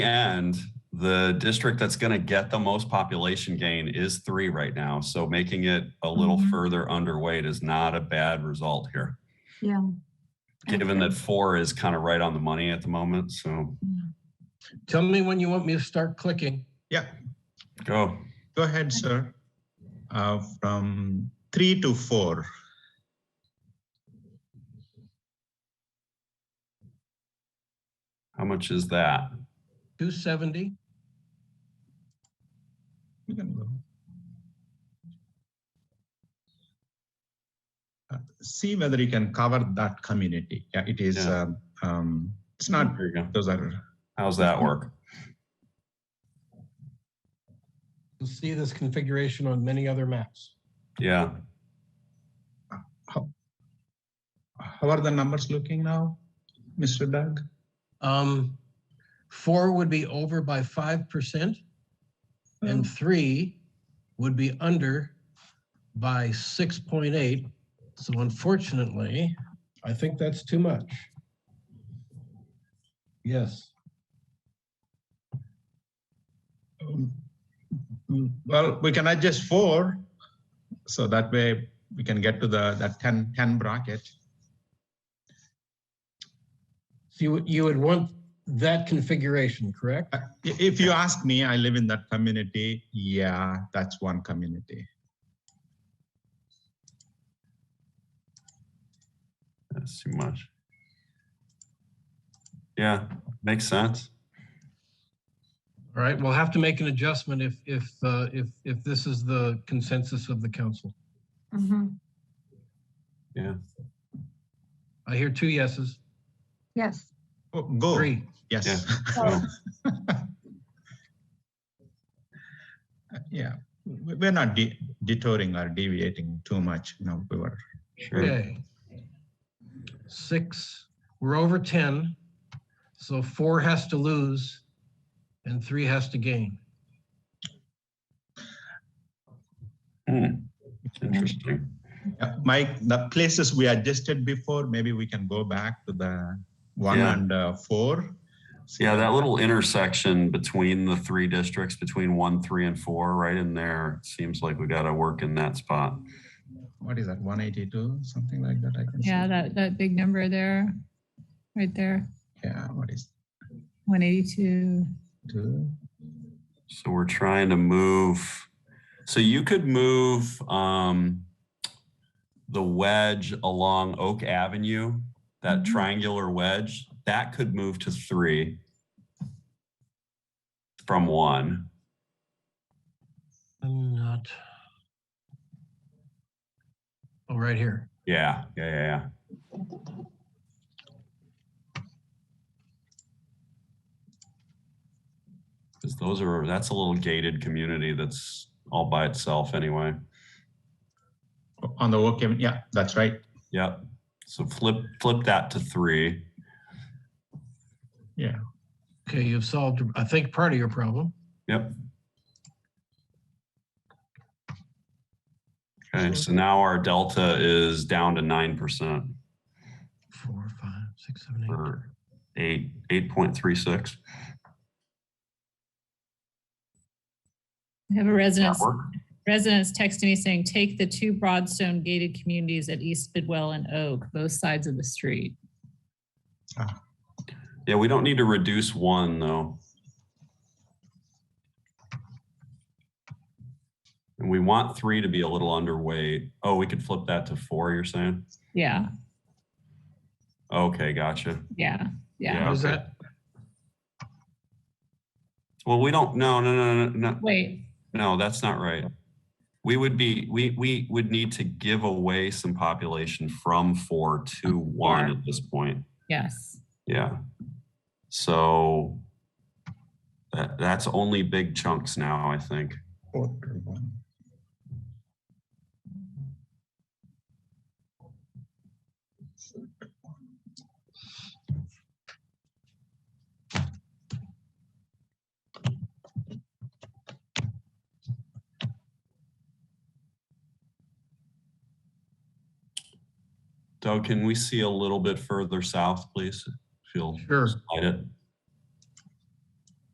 And the district that's going to get the most population gain is three right now. So making it a little Mhm. further underweight is not a bad result here, Yeah. given Okay. that four is kind of right on the money at the moment. So Tell me when you want me to start clicking. Yeah, go. go ahead, sir. Uh, From three to four. How much is that? 270? You can go. Uh, See whether you can cover that community. Yeah, it is, Yeah. um, um, it's not, There you go. those are, How's that work? You'll see this configuration on many other maps. Yeah. how are the numbers looking now, Mr. Doug? Um, Four would be over by 5%, and three would be under by 6.8. So unfortunately, I think that's too much. Yes. Um, mm, Well, we can adjust four, so that way we can get to the, that 10, 10 bracket. So you, would- you would want that configuration, correct? Uh, i- If you ask me, I live in that community. Yeah, that's one community. That's too much. Yeah, makes sense. All right, we'll have to make an adjustment if, if, uh, if, if this is the consensus of the council. Mhm. I hear two yeses, Yes. Oh, Go. three. Yes. So, Oh. Yeah. We- We're not de- detouring or deviating too much. No, we were. sure. Okay. Six, we're over 10, so four has to lose and three has to gain. Hmm, Interesting. Yeah, Uh, Mike, the places we adjusted before, maybe we can go back to the one Yeah. and uh, four. See Yeah, what- that little intersection between the three districts, between one, three, and four, right in there, it seems like we gotta work in that spot. What is that, 182, something like that? I can see. Yeah, that, that big number there, right there, Yeah, what is one eighty-two. two? So we're trying to move, so you could move um the wedge along Oak Avenue, that Mhm. triangular wedge, that could move to three from one. I'm not. Oh, right here. Yeah, yeah, yeah, yeah. Because those are, that's a little gated community that's all by itself anyway. On the work, yeah, that's right. Yep. So flip, flip that to three. Okay, you've solved, I think, part of your problem. Yep. Okay, so now our delta is down to nine percent Four, five, six, seven, eight. or eight, eight point three six. I have a resident, residents texting me saying, take the two broadstone gated communities at East Bidwell and Oak, both sides of the street. Yeah, we don't need to reduce one though. And we want three to be a little underweight. Oh, we could flip that to four, you're saying? Yeah, Okay, gotcha. yeah, yeah. Yeah. What is okay. that? Well, we don't, no, no, no, no, no, Wait, no, that's not right. We would be, we, we would need to give away some population from four to one at this point. yes, Yeah. So that, that's only big chunks now, I think. Four to one. Doug, can we see a little bit further south, please? If you'll Sure. slide it.